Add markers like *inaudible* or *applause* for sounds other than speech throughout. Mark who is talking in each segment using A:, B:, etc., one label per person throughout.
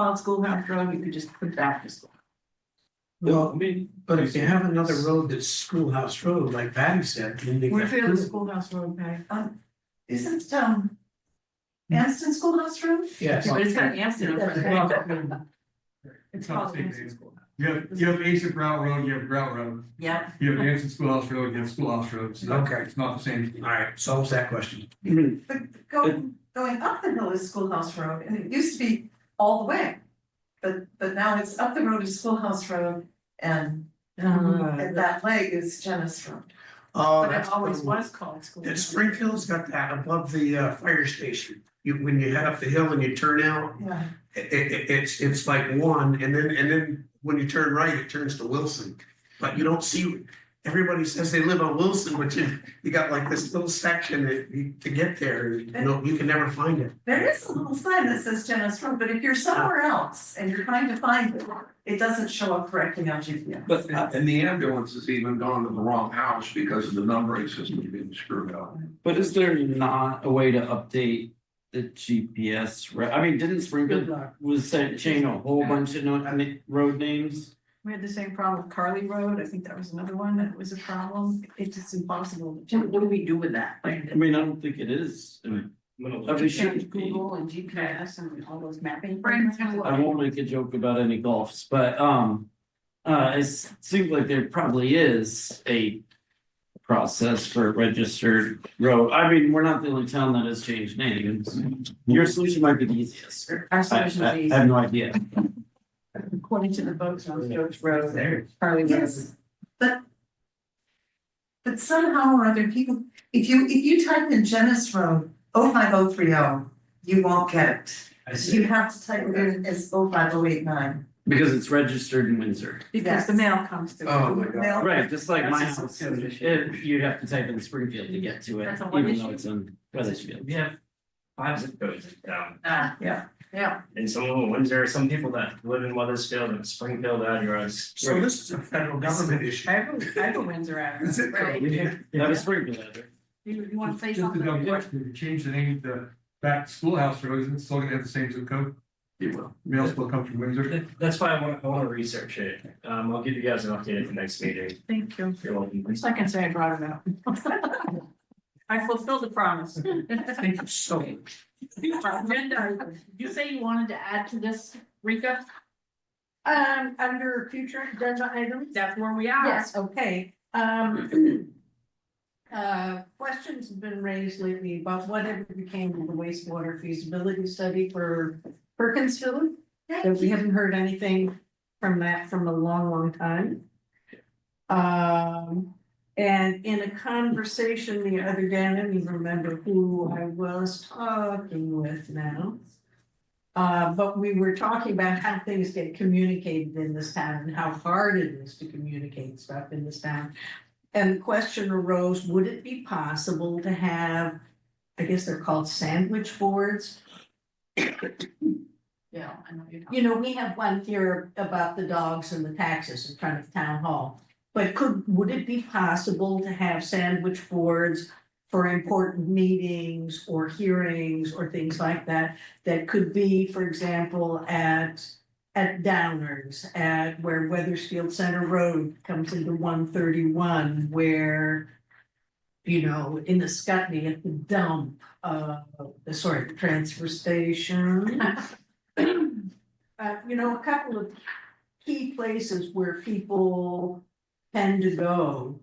A: on Schoolhouse Road, you could just put back to school.
B: Well,
C: mean.
B: but if you have another road that's Schoolhouse Road, like Patty said, then they
A: Where's
B: got
A: the other
B: two.
A: Schoolhouse Road, Patty? Um, isn't, um, Anston Schoolhouse Road?
B: Yes,
A: But it's got Anston over there. It's called
C: Something.
A: Anston Schoolhouse.
C: You have, you have Asian Grout Road, you have Grout Road,
A: Yeah,
C: you have Anderson Schoolhouse Road, you have Schoolhouse Road, so that-
B: Okay.
C: it's not the same. thing.
B: alright, solves that question.
A: but going, going up the hill is Schoolhouse Road, and it used to be all the way. But, but now it's up the road is Schoolhouse Road, and, and that leg is Jenna's Road.
B: Oh,
A: But it
B: that's.
A: always
B: cool.
A: was called Schoolhouse.
B: And Springfield's got that above the uh fire station. You, when you head up the hill and you turn out,
A: Yeah,
B: it it it's it's like one, and then and then when you turn right, it turns to Wilson. But you don't see, everybody says they live on Wilson, but you you got like this little section that you to get there, you know, you can never find it.
A: there is a little sign that says Jenna's Road, but if you're somewhere else and you're trying to find it, it doesn't show up correctly on GPS.
D: But Uh,
E: uh,
D: and the ambulance has even gone to the wrong house because of the numbering system being screwed up.
E: But is there not a way to update the GPS, re- I mean, didn't
A: Good
E: Springfield
A: luck.
E: was saying, changing a whole bunch of no- na- road names?
A: We had the same problem with Carly Road, I think that was another one that was a problem, it's just impossible. to- What do we do with that?
E: I mean, I don't think it is, I mean,
B: Oh,
E: but we should be,
A: and GPS and all those mapping. Brandon's
E: I won't make a joke about any golfs, but um. Uh, it seems like there probably is a process for registered road, I mean, we're not the only town that has changed names. Your solution might be the easiest,
A: Our
E: I
A: solution
E: I-
A: is
E: I have no idea.
A: according to the votes on George Road there, Carly Road.
F: Yes, but. But somehow or other, people, if you, if you type in Genesis Road, oh five oh three oh, you won't get
B: I
F: it.
B: see.
F: You have to type it in as oh five oh eight nine.
E: Because it's registered in Windsor.
A: Because the mail comes through.
B: Oh, my God.
E: Right, just like my
A: That's a
E: house,
A: separate issue.
E: it, you'd have to type in Springfield to get to it,
A: That's a what
E: even
A: issue?
E: though it's in Weathersfield.
G: We have five zip codes in town,
A: Ah, yeah, yeah.
G: and some of them, there are some people that live in Weathersfield and Springfield out here, it's.
B: So this is a federal government issue.
A: I have, a I have a Windsor address.
B: Zip code.
A: Right.
E: That was Springfield, I think.
A: You you wanna say
C: Just- Just a
A: something?
C: dumb question, if you change the name to back to Schoolhouse Road, isn't it still gonna have the same zip code?
D: It will.
C: Mail still come from Windsor.
G: That- That's why I want, I want to research it, um, I'll give you guys an update at the next meeting.
A: Thank you.
G: You're welcome.
A: At least I can say I brought it up. I fulfilled the promise.
B: Thank you so much.
A: Agenda, you say you wanted to add to this, Rika?
H: Um, under future agenda items,
A: That's where we are.
H: yes, okay, um. *clears throat* Uh, questions have been raised lately about whatever became of the wastewater feasibility study for Perkinsville. That we haven't heard anything from that from a long, long time. Um, and in a conversation the other day, I don't even remember who I was talking with now. Uh, but we were talking about how things get communicated in this town and how hard it is to communicate stuff in this town. And the question arose, would it be possible to have, I guess they're called sandwich boards?
A: Yeah, I know you're.
H: You know, we have one here about the dogs and the taxes in front of town hall. But could, would it be possible to have sandwich boards for important meetings or hearings or things like that? that could be, for example, at at Downers, at where Weathersfield Center Road comes into one thirty-one, where you know, in the Scotney at the dump, uh, sorry, the transfer station. *laughs* Uh, you know, a couple of key places where people tend to go.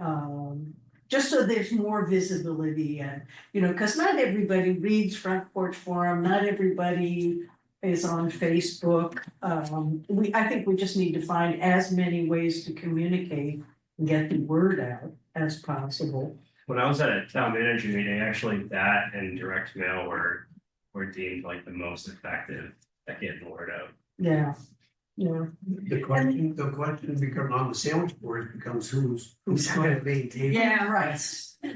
H: Um, just so there's more visibility and you know, because not everybody reads Front Porch Forum, not everybody is on Facebook. Um, we, I think we just need to find as many ways to communicate and get the word out as possible.
G: When I was at a town manager meeting, actually that and direct mail were, were deemed like the most effective at getting the word out.
H: Yeah, yeah.
B: The question, the question become on the sandwich board becomes who's, who's going to maintain.
A: Yeah,
H: right,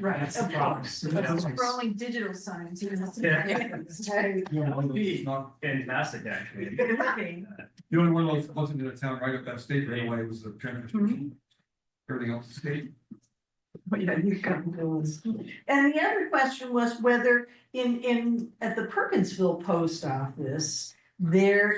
H: right,
B: That's the
H: of
B: problem.
H: course.
B: That's-
A: We're only digital signs, you know.
G: Yeah.
A: *laughs* It's
C: It's not-
G: Fantastic, actually.
A: working.
C: The only one that wasn't in the town right up that state right away was the transfer.
A: Mhm.
C: Everything else is state.
A: But yeah, you got
H: And the other question was whether in in, at the Perkinsville Post Office, there